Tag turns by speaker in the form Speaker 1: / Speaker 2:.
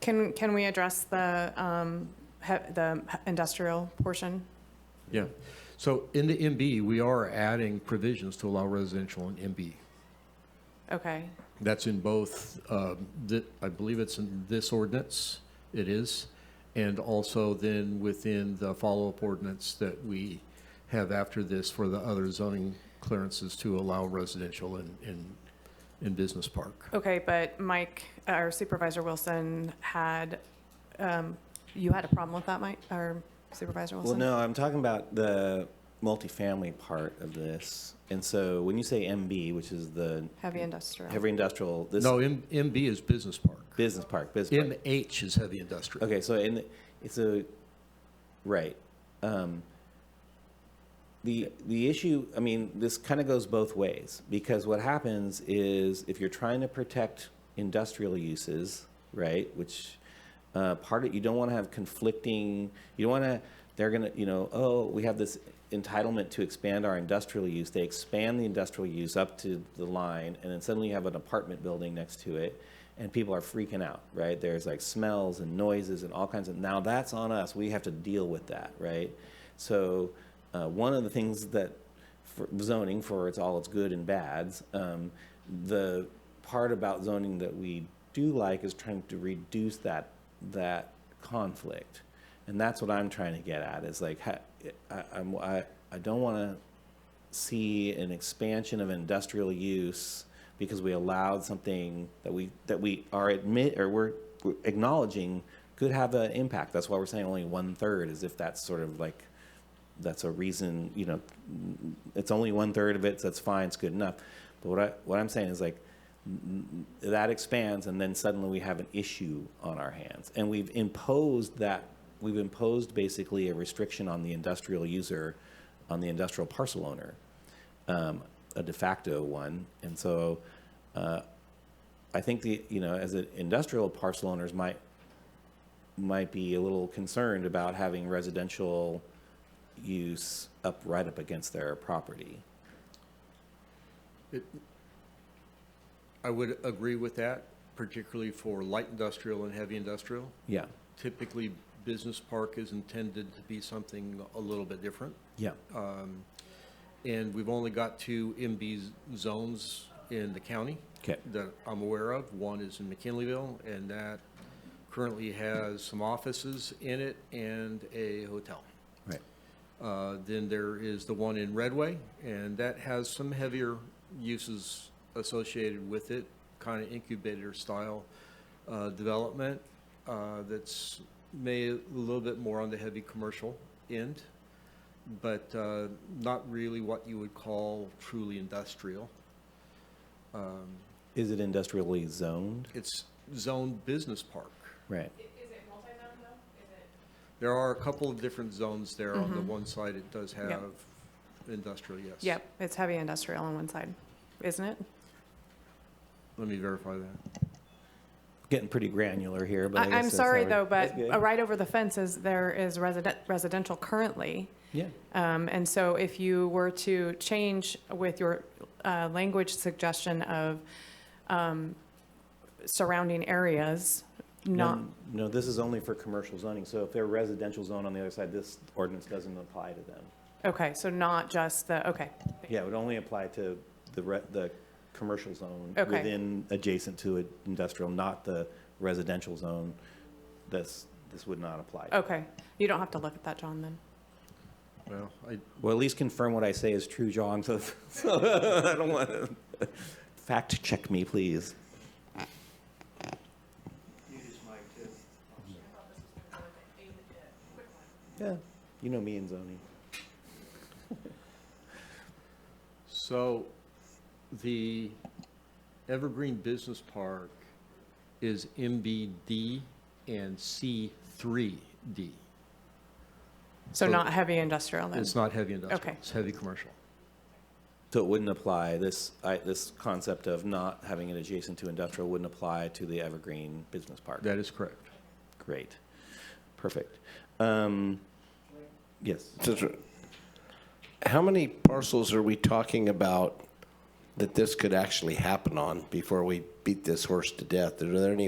Speaker 1: Can, can we address the, um, he- the industrial portion?
Speaker 2: Yeah. So in the MB, we are adding provisions to allow residential in MB.
Speaker 1: Okay,
Speaker 2: That's in both, um, the- I believe it's in this ordinance, it is, and also then within the follow-up ordinance that we have after this for the other zoning clearances to allow residential in, in, in business park.
Speaker 1: okay, but Mike, our Supervisor Wilson had, um, you had a problem with that, Mike, our Supervisor
Speaker 3: Well,
Speaker 1: Wilson?
Speaker 3: no, I'm talking about the multifamily part of this. And so when you say MB, which is the
Speaker 1: Heavy industrial.
Speaker 3: heavy industrial, this
Speaker 2: No, M- MB is business park.
Speaker 3: business park, business park.
Speaker 2: MH is heavy industrial.
Speaker 3: Okay, so in, it's a, right. Um, The, the issue, I mean, this kind of goes both ways because what happens is if you're trying to protect industrial uses, right, which uh, part of, you don't want to have conflicting, you don't want to, they're going to, you know, oh, we have this entitlement to expand our industrial use. They expand the industrial use up to the line, and then suddenly you have an apartment building next to it, and people are freaking out, right? There's like smells and noises and all kinds of, now that's on us. We have to deal with that, right? So uh, one of the things that for zoning for its all its good and bads. Um, the part about zoning that we do like is trying to reduce that that conflict, and that's what I'm trying to get at. Is like ha- I, I'm I, I don't want to see an expansion of industrial use because we allowed something that we that we are admit or we're we're acknowledging could have an impact. That's why we're saying only one third, as if that's sort of like that's a reason, you know, it's only one third of it, so that's fine, it's good enough. But what I, what I'm saying is like, n- n- that expands and then suddenly we have an issue on our hands. And we've imposed that, we've imposed basically a restriction on the industrial user, on the industrial parcel owner, um, a de facto one. And so, uh, I think the, you know, as an industrial parcel owners might, might be a little concerned about having residential use up, right up against their property.
Speaker 2: I would agree with that, particularly for light industrial and heavy industrial.
Speaker 3: Yeah,
Speaker 2: Typically, business park is intended to be something a little bit different.
Speaker 3: yeah.
Speaker 2: And we've only got two MB z- zones in the county
Speaker 3: Okay.
Speaker 2: that I'm aware of. One is in McKinleyville, and that currently has some offices in it and a hotel.
Speaker 3: Right.
Speaker 2: Uh, Then there is the one in Redway, and that has some heavier uses associated with it, kind of incubator-style uh, development uh, that's may a little bit more on the heavy commercial end, but uh, not really what you would call truly industrial. Um,
Speaker 3: Is it industrially zoned?
Speaker 2: It's zoned business park.
Speaker 3: Right.
Speaker 2: There are a couple of different zones there. On the one side, it does have industrial, yes.
Speaker 1: Yep, it's heavy industrial on one side, isn't it?
Speaker 2: Let me verify that.
Speaker 3: Getting pretty granular here, but I
Speaker 1: I,
Speaker 3: guess
Speaker 1: I'm
Speaker 3: that's
Speaker 1: sorry
Speaker 3: how we-
Speaker 1: though, but
Speaker 3: That's good.
Speaker 1: uh, right over the fence is, there is resident, residential currently.
Speaker 3: Yeah,
Speaker 1: Um, and so if you were to change with your, uh, language suggestion of, um, surrounding areas, not,
Speaker 3: no, no, this is only for commercial zoning, so if they're residential zone on the other side, this ordinance doesn't apply to them.
Speaker 1: okay, so not just the, okay,
Speaker 3: Yeah, it would only apply to the re, the commercial zone
Speaker 1: Okay.
Speaker 3: within, adjacent to an industrial, not the residential zone. This, this would not apply. to.
Speaker 1: okay. You don't have to look at that, John, then.
Speaker 2: Well, I,
Speaker 3: Well, at least confirm what I say is true, John, so, so I don't want to, fact check me, please. Yeah, you know me and zoning.
Speaker 2: so the Evergreen Business Park is MBD and C3D.
Speaker 1: So
Speaker 2: So-
Speaker 1: not heavy industrial then?
Speaker 2: It's not heavy industrial,
Speaker 1: Okay.
Speaker 2: it's heavy commercial.
Speaker 3: So it wouldn't apply, this, I, this concept of not having it adjacent to industrial wouldn't apply to the Evergreen Business Park.
Speaker 2: That is correct.
Speaker 3: Great, perfect. Um, Yes,
Speaker 4: Since we're- How many parcels are we talking about that this could actually happen on before we beat this horse to death? Are there any